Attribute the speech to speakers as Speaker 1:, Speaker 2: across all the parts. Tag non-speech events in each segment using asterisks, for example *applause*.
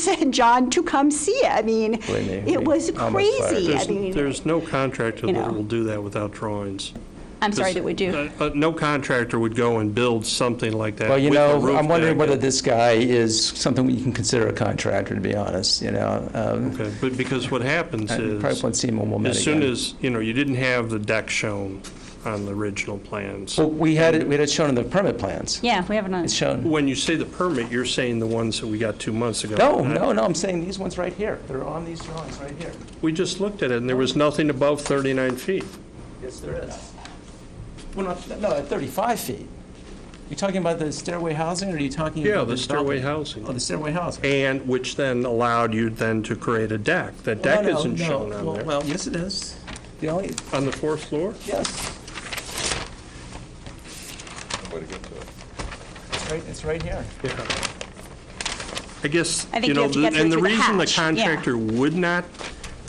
Speaker 1: said, John, to come see it. I mean,
Speaker 2: Believe me,
Speaker 1: it
Speaker 2: we
Speaker 1: was
Speaker 2: almost fired.
Speaker 1: crazy. I
Speaker 3: There's,
Speaker 1: mean,
Speaker 3: there's no contractor
Speaker 1: you know.
Speaker 3: that will do that without drawings.
Speaker 1: I'm sorry
Speaker 3: This-
Speaker 1: that we do.
Speaker 3: uh, uh, No contractor would go and build something like that.
Speaker 2: Well, you
Speaker 3: with the
Speaker 2: know,
Speaker 3: roof
Speaker 2: I'm wondering
Speaker 3: deck.
Speaker 2: whether this guy is something you can consider a contractor, to be honest, you know? Um,
Speaker 3: Okay, But because what happens
Speaker 2: I
Speaker 3: is.
Speaker 2: Uh, Probably won't see him when we'll meet
Speaker 3: As soon
Speaker 2: again.
Speaker 3: as, you know, you didn't have the deck shown on the original plans.
Speaker 2: Well, we had it, we had it shown in the permit plans.
Speaker 1: Yeah, we have another.
Speaker 2: It's shown.
Speaker 3: When you say the permit, you're saying the ones that we got two months ago.
Speaker 2: No, no, no, I'm saying these ones right here. They're on these drawings right here.
Speaker 3: We just looked at it, and there was nothing above 39 feet.
Speaker 2: Yes, there is. Well, not, no, at 35 feet. You talking about the stairway housing, or are you talking
Speaker 3: Yeah,
Speaker 2: about
Speaker 3: the
Speaker 2: the
Speaker 3: stairway
Speaker 2: balcony? Oh,
Speaker 3: housing.
Speaker 2: the stairway housing.
Speaker 3: And which then allowed you then to create a deck. That deck
Speaker 2: Oh, No, no,
Speaker 3: isn't
Speaker 2: no.
Speaker 3: shown on
Speaker 2: Well-
Speaker 3: there.
Speaker 2: Well, yes, it is. The only,
Speaker 3: On the fourth floor?
Speaker 2: yes,
Speaker 4: Way to get to it.
Speaker 2: it's right, it's right here.
Speaker 3: Yeah. I guess,
Speaker 1: I think
Speaker 3: you
Speaker 1: you
Speaker 3: know,
Speaker 1: have to get
Speaker 3: the-
Speaker 1: through
Speaker 3: and the
Speaker 1: to the
Speaker 3: reason the
Speaker 1: hatch, yeah.
Speaker 3: contractor would not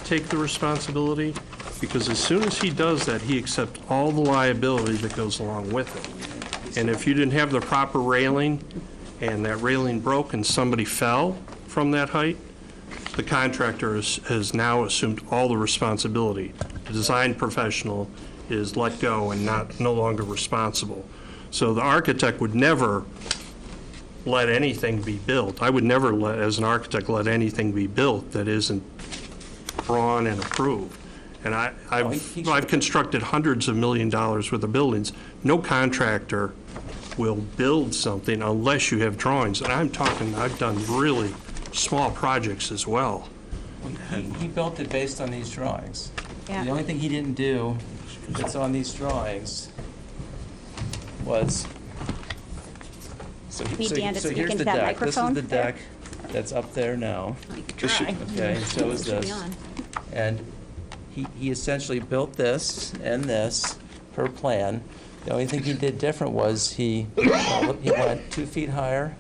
Speaker 3: take the responsibility, because as soon as he does that, he accepts all the liability that goes along with it. And if you didn't have the proper railing, and that railing broke and somebody fell from that height, the contractor is- has now assumed all the responsibility. The design professional is let go and not, no longer responsible. So the architect would never let anything be built. I would never let, as an architect, let anything be built that isn't drawn and approved. And I,
Speaker 2: he-
Speaker 3: I've, I've constructed hundreds of million dollars worth of buildings. No contractor will build something unless you have drawings. And I'm talking, I've done really small projects as well.
Speaker 2: He, he built it based on these drawings.
Speaker 1: Yeah.
Speaker 2: The only thing he didn't do that's on these drawings was, so, he-
Speaker 1: Need
Speaker 2: so,
Speaker 1: Dan to
Speaker 2: so
Speaker 1: speak
Speaker 2: here's
Speaker 1: into
Speaker 2: the
Speaker 1: that
Speaker 2: deck. This is
Speaker 1: microphone
Speaker 2: the
Speaker 1: there.
Speaker 2: deck that's up there now,
Speaker 1: Like,
Speaker 4: This should-
Speaker 1: try.
Speaker 2: okay, and so is
Speaker 1: Should be
Speaker 2: this.
Speaker 1: on.
Speaker 2: And he, he essentially built this and this per plan. The only thing he did different was he, he went two feet higher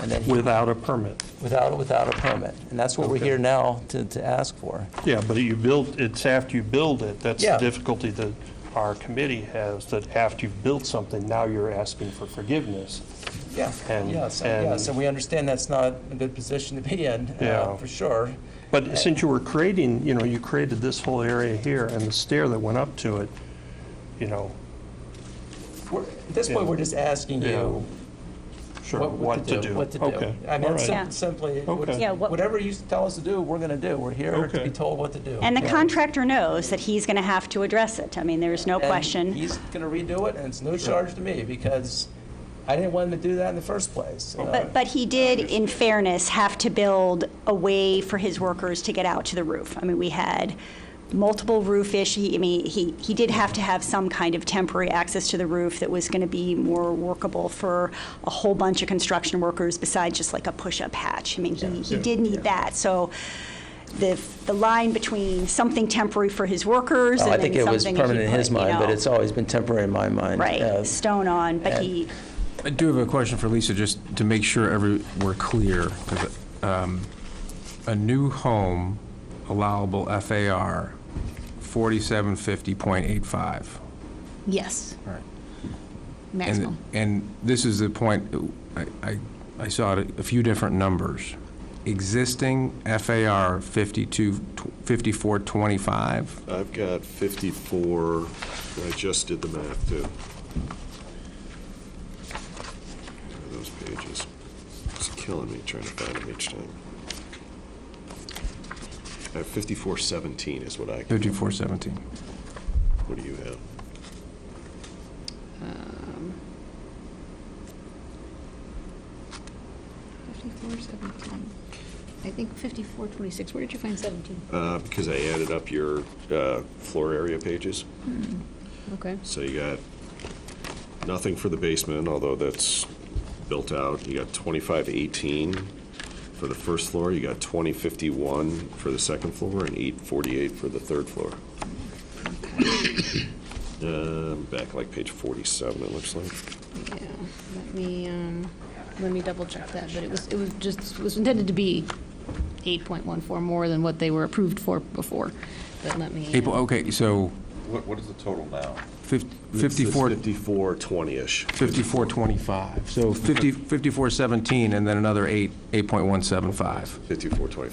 Speaker 2: and then he
Speaker 3: Without a permit.
Speaker 2: Without, without a permit, and that's what we're
Speaker 3: Okay.
Speaker 2: here now to, to ask for.
Speaker 3: Yeah, but you build, it's after you build it, that's the
Speaker 2: Yeah.
Speaker 3: difficulty that our committee has, that after you've built something, now you're asking for forgiveness.
Speaker 2: Yeah.
Speaker 3: And-
Speaker 2: Yeah, so, yeah,
Speaker 3: and-
Speaker 2: so we understand that's not a good position to be in, uh,
Speaker 3: Yeah.
Speaker 2: for sure.
Speaker 3: But since you were creating, you know, you created this whole area here and the stair that went up to it, you know,
Speaker 2: We're- At this point, we're just asking you
Speaker 3: sure,
Speaker 2: what
Speaker 3: what to do.
Speaker 2: What to do.
Speaker 3: Okay,
Speaker 2: I mean,
Speaker 3: all
Speaker 2: it's
Speaker 3: right.
Speaker 2: sim-
Speaker 1: Yeah.
Speaker 2: simply,
Speaker 3: Okay.
Speaker 1: Yeah, what-
Speaker 2: whatever you tell us to do, we're going to do. We're here to
Speaker 3: Okay.
Speaker 2: be told what to do.
Speaker 1: And the
Speaker 2: Yeah.
Speaker 1: contractor knows that he's going to have to address it. I mean, there's no
Speaker 2: And
Speaker 1: question.
Speaker 2: He's going to redo it, and it's no charge to me, because I didn't want him to do that in the first place. Uh,
Speaker 1: But, but he did, in fairness, have to build a way for his workers to get out to the roof. I mean, we had multiple roof issues. I mean, he, he did have to have some kind of temporary access to the roof that was going to be more workable for a whole bunch of construction workers besides just like a push-up hatch. I mean, he, he did need that. So the, the line between something temporary for his workers
Speaker 2: Oh, I
Speaker 1: and
Speaker 2: think
Speaker 1: then
Speaker 2: it was
Speaker 1: something that he
Speaker 2: permanent in
Speaker 1: put,
Speaker 2: his
Speaker 1: you
Speaker 2: mind, but
Speaker 1: know,
Speaker 2: it's always been temporary in my mind. Uh,
Speaker 1: Right, stone on, but he,
Speaker 5: I do have a question for Lisa, just to make sure every, we're clear, 'cause, um, a new home allowable FAR, 4750.85.
Speaker 6: Yes,
Speaker 5: All right.
Speaker 6: maximum.
Speaker 5: And, and this is the point, I, I, I saw it, a few different numbers. Existing FAR 52, 5425,
Speaker 4: I've got 54, I just did the math, too. Where are Those pages. It's killing me trying to find them each time. I have 5417 is what I,
Speaker 5: 5417.
Speaker 4: what do you have?
Speaker 6: Fifty-four seventeen. I think fifty-four twenty-six. Where did you find seventeen?
Speaker 4: Uh, Because I added up your uh, floor area pages.
Speaker 6: Okay.
Speaker 4: So you got nothing for the basement, although that's built out. You got 2518 for the first floor, you got 2051 for the second floor, and 848 for the third floor. *coughs* Um, Back like page 47, it looks like.
Speaker 6: Yeah, let me, um, let me double check that, but it was, it was just, it was intended to be eight point one four more than what they were approved for before, but let me. uh,
Speaker 5: April, okay, so
Speaker 7: What, what is the total now?
Speaker 5: Fif-
Speaker 4: It says
Speaker 5: 54,
Speaker 4: 54, 20-ish.
Speaker 5: 5425. So 50, 5417, and then another 8, 8.175.
Speaker 4: 54, 25.